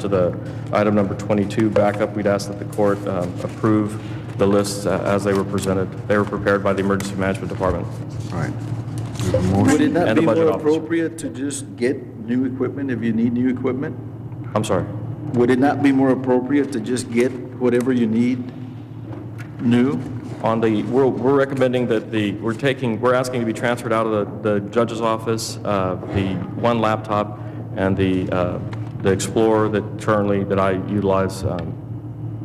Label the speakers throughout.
Speaker 1: To the item number 22 backup, we'd ask that the court um, approve the lists uh, as they were presented. They were prepared by the Emergency Management Department.
Speaker 2: All right. We have a motion.
Speaker 3: Would it not
Speaker 1: And the
Speaker 3: be
Speaker 1: budget
Speaker 3: more
Speaker 1: officer.
Speaker 3: appropriate to just get new equipment if you need new equipment?
Speaker 1: I'm sorry.
Speaker 3: Would it not be more appropriate to just get whatever you need new?
Speaker 1: On the, we're we're recommending that the, we're taking, we're asking to be transferred out of the the judge's office, uh, the one laptop and the uh, the Explorer that currently, that I utilize, um,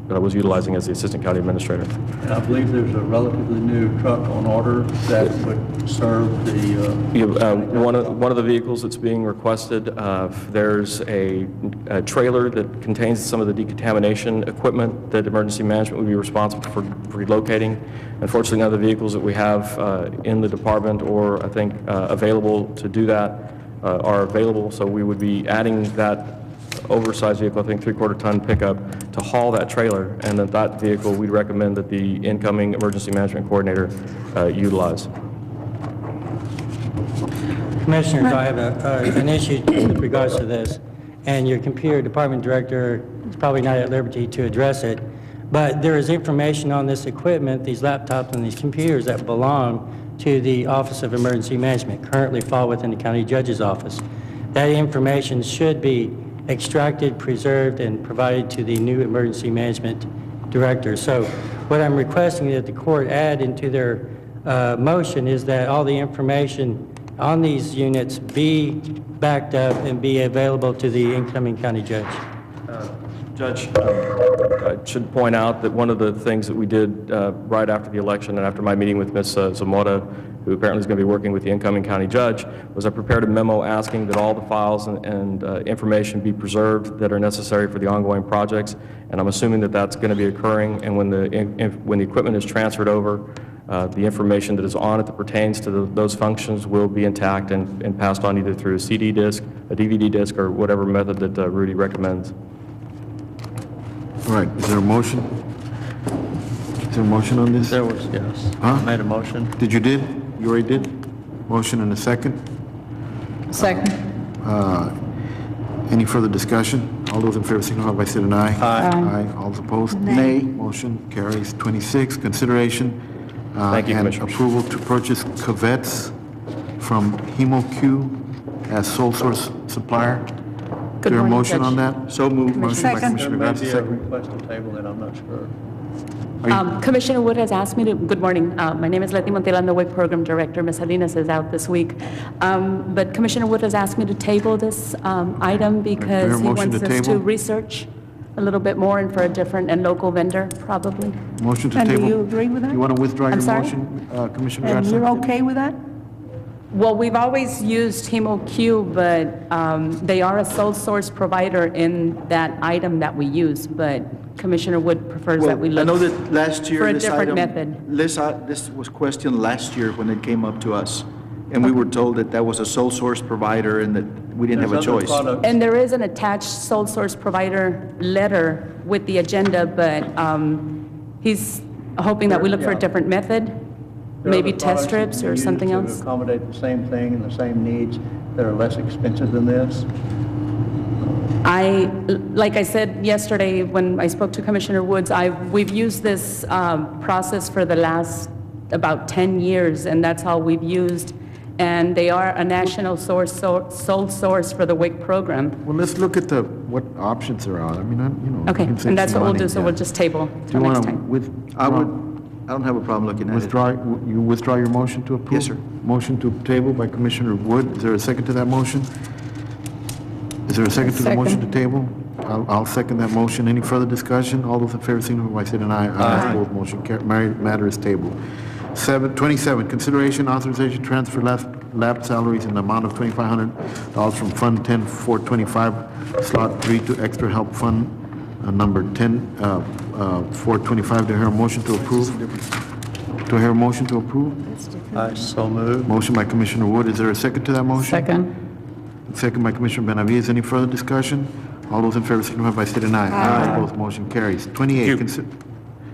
Speaker 1: that I was utilizing as the Assistant County Administrator.
Speaker 4: And I believe there's a relatively new truck on order that would serve the, uh,
Speaker 1: You- uh, One of one of the vehicles that's being requested, uh, there's a a trailer that contains some of the decontamination equipment that emergency management would be responsible for relocating. Unfortunately, none of the vehicles that we have uh, in the department or, I think, uh, available to do that uh, are available, so we would be adding that oversized vehicle, I think three-quarter ton pickup, to haul that trailer, and that that vehicle, we'd recommend that the incoming emergency management coordinator uh, utilize.
Speaker 5: Commissioners, I have a- a- an issue with regards to this, and your computer department director is probably not at liberty to address it, but there is information on this equipment, these laptops and these computers that belong to the Office of Emergency Management, currently fall within the county judge's office. That information should be extracted, preserved, and provided to the new emergency management director. So what I'm requesting that the court add into their uh, motion is that all the information on these units be backed up and be available to the incoming county judge.
Speaker 1: Judge, um, I should point out that one of the things that we did uh, right after the election and after my meeting with Ms. Zamora, who apparently is going to be working with the incoming county judge, was I prepared a memo asking that all the files and- and uh, information be preserved that are necessary for the ongoing projects, and I'm assuming that that's going to be occurring, and when the, in- in- when the equipment is transferred over, uh, the information that is on it that pertains to the- those functions will be intact and and passed on either through a CD disc, a DVD disc, or whatever method that uh, Rudy recommends.
Speaker 2: All right, is there a motion? Is there a motion on this?
Speaker 6: There was, yes.
Speaker 2: Huh?
Speaker 6: Made a motion.
Speaker 2: Did you did? You already did? Motion and a second?
Speaker 7: Second.
Speaker 2: Any further discussion? All those in favor signify by saying aye. Aye. Aye, all those opposed? Nay. Motion carries. 26, consideration uh,
Speaker 1: Thank you,
Speaker 2: and
Speaker 1: Commissioners.
Speaker 2: approval to purchase cuvettes from HemoQ as sole source supplier. Is there a
Speaker 7: morning,
Speaker 2: motion
Speaker 7: Judge.
Speaker 2: on that? So moved. Motion by
Speaker 7: Second.
Speaker 4: there
Speaker 2: Commissioner
Speaker 4: may
Speaker 2: Garcia,
Speaker 4: be a
Speaker 2: second.
Speaker 4: request to table that, I'm not sure.
Speaker 8: Um, Commissioner Wood has asked me to, good morning, Uh, my name is Letty Montela, I'm the WIC Program Director, Ms. Salinas is out this week, Um, but Commissioner Wood has asked me to table this um, item because he
Speaker 2: motion
Speaker 8: wants
Speaker 2: to
Speaker 8: us to
Speaker 2: table?
Speaker 8: research a little bit more and for a different and local vendor, probably.
Speaker 2: Motion to
Speaker 7: And
Speaker 2: table.
Speaker 7: do you agree with that?
Speaker 2: You want to withdraw
Speaker 8: I'm
Speaker 2: your
Speaker 8: sorry?
Speaker 2: motion, uh, Commissioner
Speaker 7: And
Speaker 2: Garcia?
Speaker 7: you're okay with that?
Speaker 8: Well, we've always used HemoQ, but um, they are a sole source provider in that item that we use, but Commissioner Wood prefers that we
Speaker 3: Well, I
Speaker 8: look.
Speaker 3: know that last year,
Speaker 8: for a
Speaker 3: this
Speaker 8: different
Speaker 3: item-
Speaker 8: method.
Speaker 3: This, i- this was questioned last year when it came up to us, and we were told that that was a sole source provider and that we didn't have a
Speaker 4: There's other
Speaker 3: choice.
Speaker 4: products.
Speaker 8: And there is an attached sole source provider letter with the agenda, but um, he's hoping that we look for a
Speaker 4: Yeah.
Speaker 8: different method,
Speaker 4: There are
Speaker 8: maybe
Speaker 4: other
Speaker 8: test
Speaker 4: products
Speaker 8: strips
Speaker 4: that can be
Speaker 8: or
Speaker 4: used
Speaker 8: something
Speaker 4: To
Speaker 8: else.
Speaker 4: accommodate the same thing and the same needs that are less expensive than this.
Speaker 8: I, like I said yesterday when I spoke to Commissioner Woods, I, we've used this um, process for the last about 10 years, and that's how we've used, and they are a national source, so- sole source for the WIC program.
Speaker 2: Well, let's look at the, what options there are. I mean, I, you know. we
Speaker 8: Okay,
Speaker 2: can save
Speaker 8: and that's
Speaker 2: some
Speaker 8: what we'll
Speaker 2: money,
Speaker 8: do, so
Speaker 2: yeah.
Speaker 8: we'll just table
Speaker 2: Do
Speaker 8: till
Speaker 2: you want
Speaker 8: next
Speaker 2: to
Speaker 8: time.
Speaker 3: I would,
Speaker 2: withdraw,
Speaker 3: I don't have a problem looking at it.
Speaker 2: withdraw, you withdraw your motion to approve?
Speaker 3: Yes, sir.
Speaker 2: Motion to table by Commissioner Wood. Is there a second to that motion? Is there a second to the motion to
Speaker 7: Second.
Speaker 2: table? I'll, I'll second that motion. Any further discussion? All those in favor signify by saying aye. Aye. Opposed, motion car, mar- matter is tabled. Seven, twenty-seven, consideration authorization transfer lab, lab salaries in the amount of twenty-five hundred dollars from Fund ten four twenty-five, slot three to extra help fund, uh, number ten, uh, uh, four twenty-five. Do I hear a motion to approve? Do I hear a motion to approve?
Speaker 6: I so moved.
Speaker 2: Motion by Commissioner Wood. Is there a second to that motion?
Speaker 7: Second.
Speaker 2: Second by Commissioner Benavides. Any further discussion? All those in favor signify by state and I. Aye. Opposed, motion carries. Twenty-eight, consi-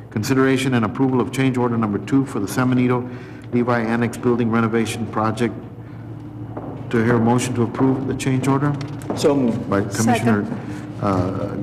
Speaker 2: consideration and approval of change order number two for the Samanito Levi Annex Building Renovation Project. Do I hear a motion to approve the change order?
Speaker 3: So moved.
Speaker 2: By Commissioner uh,